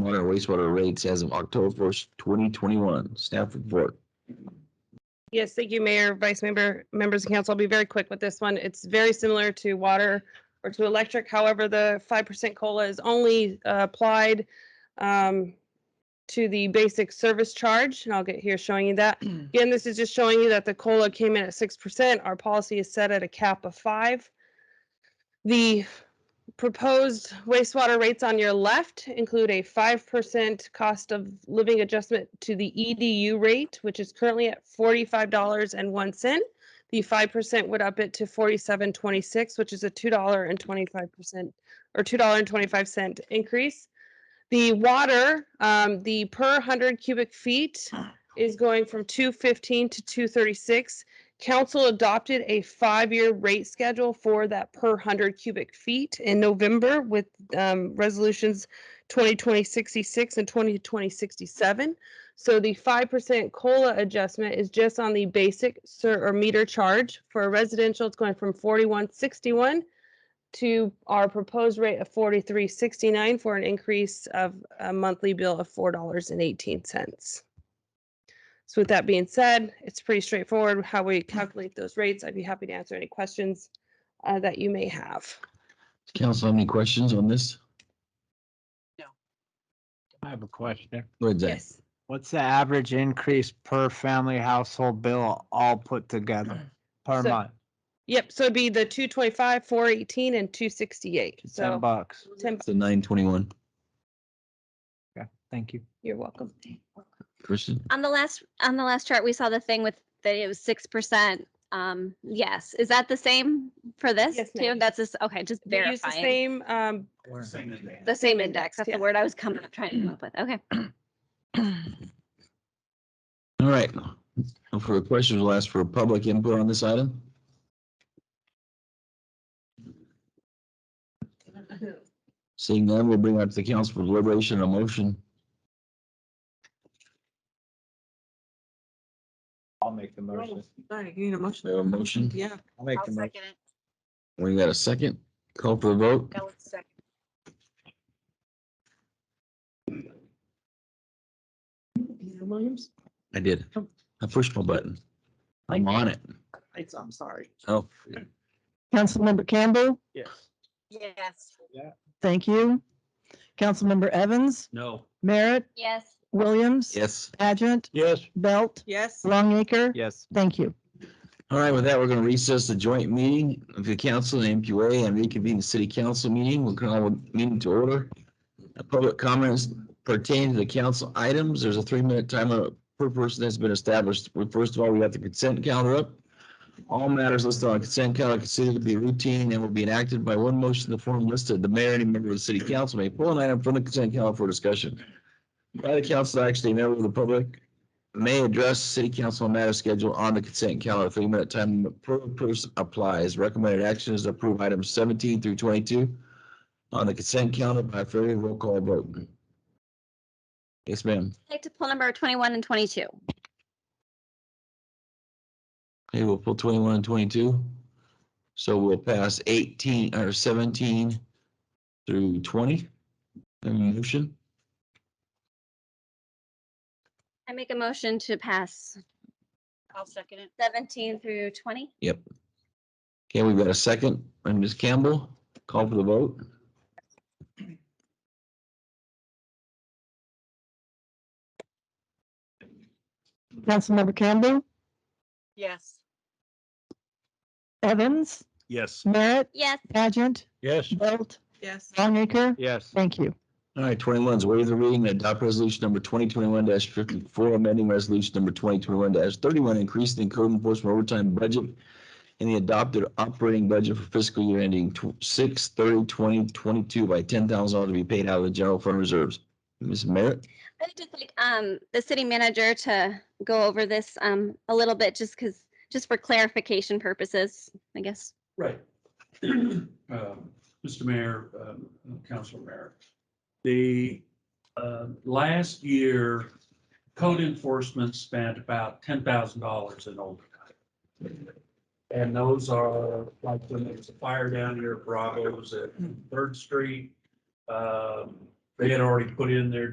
water and wastewater rates as of October first, twenty twenty-one. Staff report. Yes, thank you, Mayor, Vice Member, members of council. I'll be very quick with this one. It's very similar to water or to electric. However, the five percent COLA is only uh, applied um, to the basic service charge, and I'll get here showing you that. Again, this is just showing you that the COLA came in at six percent. Our policy is set at a cap of five. The proposed wastewater rates on your left include a 5% cost of living adjustment to the EDU rate, which is currently at $45.01. The 5% would up it to $47.26, which is a $2.25% or $2.25 increase. The water, um, the per 100 cubic feet is going from 215 to 236. Council adopted a five-year rate schedule for that per 100 cubic feet in November with um, resolutions 2020-66 and 2020-67. So the 5% COLA adjustment is just on the basic ser- or meter charge. For a residential, it's going from 4161 to our proposed rate of 4369 for an increase of a monthly bill of $4.18. So with that being said, it's pretty straightforward how we calculate those rates. I'd be happy to answer any questions uh, that you may have. Council, any questions on this? I have a question. Go ahead, Zach. Yes. What's the average increase per family household bill all put together per So- month? Yep, so it'd be the 225, 418, and 268. Ten So bucks. 10, So nine twenty-one. Thank you. you're welcome. Kristen? On the last, on the last chart, we saw the thing with that it was six percent. Um, yes, is that the same for this? Yes, too? ma'am. That's just, okay, just We use the verifying. same, um, The same index, that's yeah. the word I was coming, up trying to come up with, okay. All right. No further questions. We'll ask for public input on this item. Seeing none, we'll bring that to the council for deliberation and a motion. I'll make the motion. Sorry, you need a We have a motion. motion. Yeah, I'll make the motion. We got a second. Call for the vote. Peter Williams. Oh. I did. I pushed my button. I'm on it. It's- I'm sorry. Oh, Councilmember Campbell, Yes. Yes. thank you. Councilmember Evans, No. Merritt, Yes. Williams, yes. Pageant, Yes. Belt, Yes. Longacre. Yes. Thank you. All right, with that, we're gonna recess the joint meeting of the council and MQA and reconvene the city council meeting. We'll call the meeting to order. Uh, Public comments pertain to the council items. There's a three-minute time limit per person that's been established. Well, First of all, we have the consent calendar up. All matters listed on consent calendar considered to be routine and will be enacted by one motion in the form listed. The mayor and any member of the city council may pull an item from the consent calendar for discussion. By the council, actually, a member of the public may address city council on matters scheduled on the consent calendar. Three minute time limit per person applies. Recommended action is to approve items seventeen through twenty-two on the consent calendar by a fair roll call vote. Yes, ma'am. I'd like to pull number twenty-one and twenty-two. Okay, we'll pull twenty-one and twenty-two. So we'll pass eighteen or seventeen through twenty. Have a Motion, I make a motion to pass. I'll second it. Seventeen through twenty? okay, we've got a second, and Ms. Campbell, call for the vote. Councilmember Campbell, Yes. Evans, Yes. Merritt, Yes. Pageant, Yes. Belt, Yes. Longacre. Yes. Thank you. All right, twenty-one is waive the reading and adopt resolution number twenty twenty-one fifty-four, amending resolution number twenty twenty-one thirty-one, increasing code enforcement overtime budget and the adopted operating budget for fiscal year ending six thirty twenty twenty-two by ten thousand dollars to be paid out of the general fund reserves. Ms. Merritt, I'd just like um, the city manager to go over this um, a little bit, just because, just for clarification purposes, I guess. Right. Um, Mr. Mayor, um, Council Mayor, the um, last year, code enforcement spent about ten thousand dollars in overtime. And those are like when there was a fire down here, at Bravos at Third Street. um, They had already put in their